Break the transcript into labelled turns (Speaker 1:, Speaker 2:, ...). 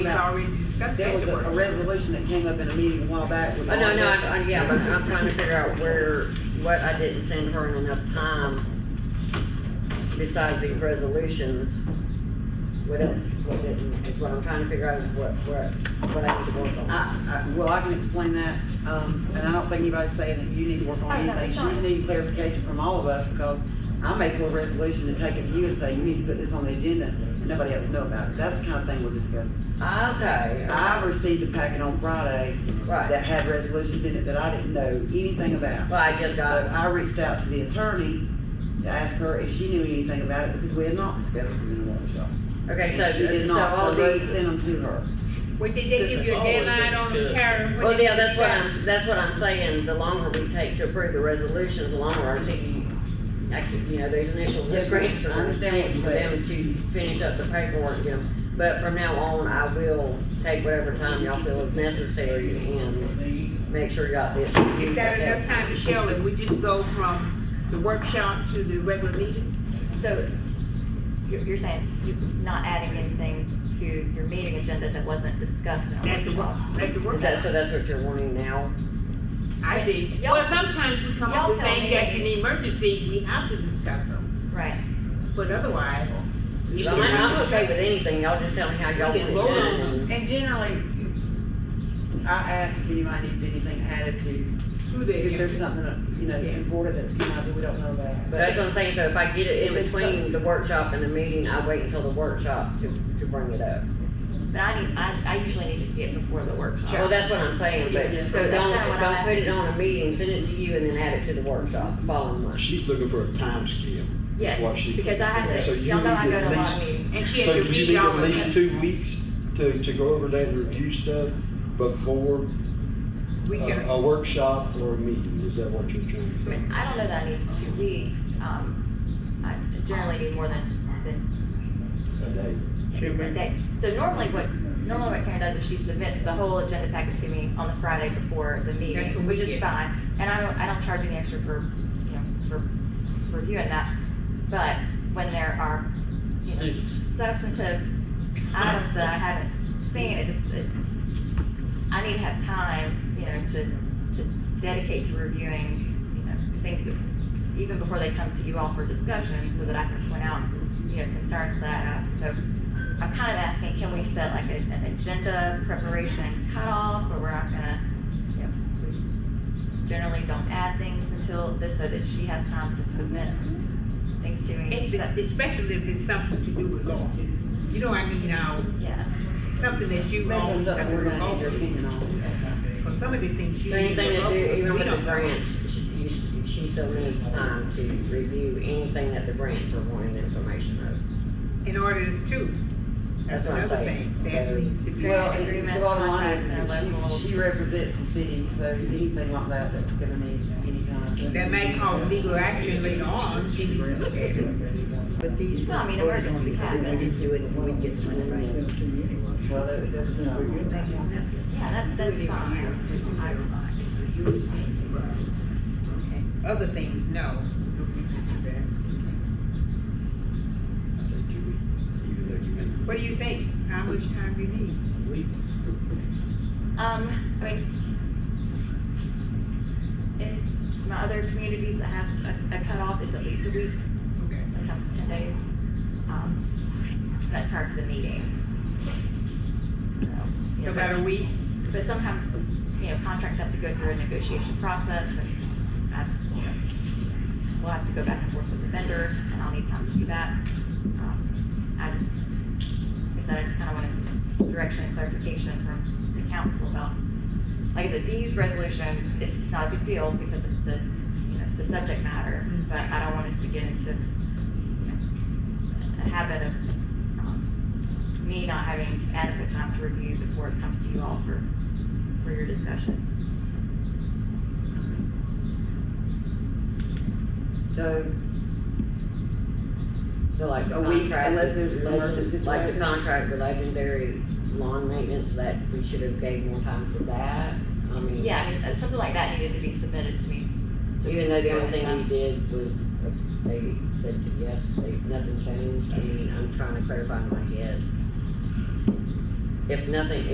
Speaker 1: We already discussed
Speaker 2: There was a, a
Speaker 1: afterwards.
Speaker 2: resolution that came up in a meeting a while back with.
Speaker 3: Oh, no,
Speaker 2: all
Speaker 3: no,
Speaker 2: that.
Speaker 3: I, I, yeah, but I'm trying to figure out where, what I didn't send her in enough time besides these resolutions. What else, what didn't, is what I'm trying to figure out is what, what, what I need to work on.
Speaker 2: I, I, well, I can explain that, um, and I don't think anybody's saying that you need to work on
Speaker 4: Oh, no, it's
Speaker 2: anything. She
Speaker 4: not.
Speaker 2: needs clarification from all of us, because I may pull a resolution and take it to you and say, you need to put this on the agenda, and nobody else know about it. That's the kind of thing we're discussing.
Speaker 3: Okay,
Speaker 2: I received a packet on Friday that
Speaker 3: right,
Speaker 2: had resolutions in it that I didn't know anything about.
Speaker 3: well, I just
Speaker 2: So
Speaker 3: got it.
Speaker 2: I reached out to the attorney to ask her if she knew anything about it, because we had not discussed it in a workshop.
Speaker 3: Okay,
Speaker 2: And She
Speaker 3: so,
Speaker 2: did
Speaker 3: so
Speaker 2: not,
Speaker 3: all
Speaker 2: so they
Speaker 3: these,
Speaker 2: sent them to her.
Speaker 1: Well, did they give you a deadline on the calendar?
Speaker 3: well, yeah, that's what I'm, that's what I'm saying, the longer we take to approve the resolutions, the longer our city, actually, you know, these initials,
Speaker 2: Yes,
Speaker 3: this
Speaker 2: ma'am.
Speaker 3: grants
Speaker 2: I
Speaker 3: are
Speaker 2: understand what
Speaker 3: understanding
Speaker 2: you're
Speaker 3: for
Speaker 2: saying.
Speaker 3: them to finish up the paperwork, you know. But from now on, I will take whatever time y'all feel is necessary and make sure y'all did.
Speaker 1: Is that enough time, Michelle, if we just go from the workshop to the regular meeting?
Speaker 4: So you're, you're saying you're not adding anything to your meeting agenda that wasn't discussed in a
Speaker 1: At the work,
Speaker 4: workshop?
Speaker 1: at the
Speaker 3: Is that,
Speaker 1: workshop?
Speaker 3: so that's what you're wanting now?
Speaker 1: I think,
Speaker 4: Y'all-
Speaker 1: well, sometimes we come up
Speaker 4: y'all
Speaker 1: with
Speaker 4: tell
Speaker 1: things
Speaker 4: me.
Speaker 1: that's an emergency, we have to discuss them,
Speaker 4: Right.
Speaker 1: but otherwise. we
Speaker 3: So
Speaker 1: can-
Speaker 3: I'm, I'm okay with anything, y'all just tell me how y'all want
Speaker 1: We
Speaker 3: it
Speaker 1: can vote on
Speaker 3: done.
Speaker 2: And generally, I ask if anybody needs anything added to,
Speaker 1: Through
Speaker 2: if
Speaker 1: the,
Speaker 2: there's something, you know, important that's come out that we don't know about.
Speaker 3: But That's what I'm saying, so if I get it in
Speaker 2: If it's
Speaker 3: between the workshop and the meeting, I wait until the workshop to, to bring it up.
Speaker 4: But I need, I, I usually need to see it before the workshop.
Speaker 3: Well, that's what I'm saying, but,
Speaker 2: Yeah.
Speaker 3: so don't,
Speaker 4: That's what
Speaker 3: don't
Speaker 4: I'm
Speaker 3: put it on a meeting, send it to you and then add it to the workshop the following month.
Speaker 5: She's looking for a time scale. what
Speaker 4: Yes,
Speaker 5: she-
Speaker 4: because I have
Speaker 5: So
Speaker 4: to,
Speaker 5: you
Speaker 4: y'all know I
Speaker 5: need
Speaker 4: go
Speaker 5: at
Speaker 4: to a lot
Speaker 5: least-
Speaker 4: of meetings.
Speaker 1: and she
Speaker 5: So
Speaker 1: had to
Speaker 5: you
Speaker 1: read
Speaker 5: need
Speaker 1: y'all.
Speaker 5: at
Speaker 1: with
Speaker 5: least
Speaker 1: us.
Speaker 5: two weeks to, to go over that and review stuff before
Speaker 1: We
Speaker 5: a
Speaker 1: can,
Speaker 5: a workshop or a meeting, is that what you're trying to
Speaker 4: I
Speaker 5: say?
Speaker 4: mean, I don't know that I need two weeks, um, I generally need more than, than
Speaker 5: A day.
Speaker 4: a day. So normally what, normally what Karen does is she submits the whole agenda packet to me on the Friday before the
Speaker 1: That's what
Speaker 4: meeting,
Speaker 1: we
Speaker 4: which is
Speaker 1: get.
Speaker 4: fine. And I don't, I don't charge any extra for, you know, for reviewing that, but when there are, you know, substantive items that I haven't seen, it just, it, I need to have time, you know, to, to dedicate to reviewing, you know, things that- even before they come to you all for discussion, so that I can point out, you know, concerns that, I have. so I'm kind of asking, can we set like a- an agenda preparation cutoff, or we're not gonna, you know, we generally don't add things until this, so that she has time to submit things to me?
Speaker 1: if it's- especially if it's something to do with law. You know, I mean, now,
Speaker 4: Yeah.
Speaker 1: something that you
Speaker 2: Especially
Speaker 1: own,
Speaker 2: stuff
Speaker 1: something
Speaker 2: we're
Speaker 1: with
Speaker 2: gonna need your
Speaker 1: law.
Speaker 2: opinion on.
Speaker 1: Because some of the things you.
Speaker 3: So anything
Speaker 1: do
Speaker 3: that
Speaker 1: local,
Speaker 3: do, even
Speaker 1: we
Speaker 3: with the
Speaker 1: don't know.
Speaker 3: grants, she, she- she still needs time to review anything that the grants are wanting information of.
Speaker 1: And orders too.
Speaker 3: That's what I'm
Speaker 1: Another
Speaker 3: saying.
Speaker 1: thing that needs to be.
Speaker 2: Well,
Speaker 4: Grant
Speaker 2: and
Speaker 4: agreements,
Speaker 2: the bottom line
Speaker 4: contracts, and
Speaker 2: is,
Speaker 4: locals.
Speaker 2: she, she represents the city, so anything like that, that's gonna need any kind of.
Speaker 1: That may cause legal action later on, she needs to look at it.
Speaker 6: But these.
Speaker 4: No, I mean, emergency
Speaker 6: They
Speaker 4: happens.
Speaker 6: just do it when we get to the right.
Speaker 2: Well, that, that's, no.
Speaker 4: Yeah, that, that's fine. I
Speaker 1: Other things, no.
Speaker 5: I say two weeks, even though you may.
Speaker 1: What do you think? How much time do you need?
Speaker 4: Um, I mean, in my other communities, I have a, a cutoff, it's at least a week,
Speaker 1: Okay.
Speaker 4: sometimes ten days. Um, that's part of the meeting. So, you know,
Speaker 1: About a week?
Speaker 4: But sometimes, you know, contracts have to go through a negotiation process and, I, you know, we'll have to go back and forth with the vendor and I'll need time to do that. Um, I just, like I said, I just kind of wanted direction and clarification from the council about, like I said, these resolutions, it's not a big deal because of the, you know, the subject matter, but I don't want us to get into, you know, a habit of, um, me not having adequate time to review before it comes to you all for, for your discussion.
Speaker 2: So,
Speaker 3: So like the
Speaker 2: A week,
Speaker 3: contract,
Speaker 2: unless there's an emergency
Speaker 3: with- like the
Speaker 2: situation.
Speaker 3: contract with legendary lawn maintenance, that we should have gave more time for that. I mean,
Speaker 4: Yeah, I mean, uh, something like that needed to be submitted to me.
Speaker 3: even though the only thing we did was, they said yes, they, nothing changed. I mean, I'm trying to clarify in my head. if nothing,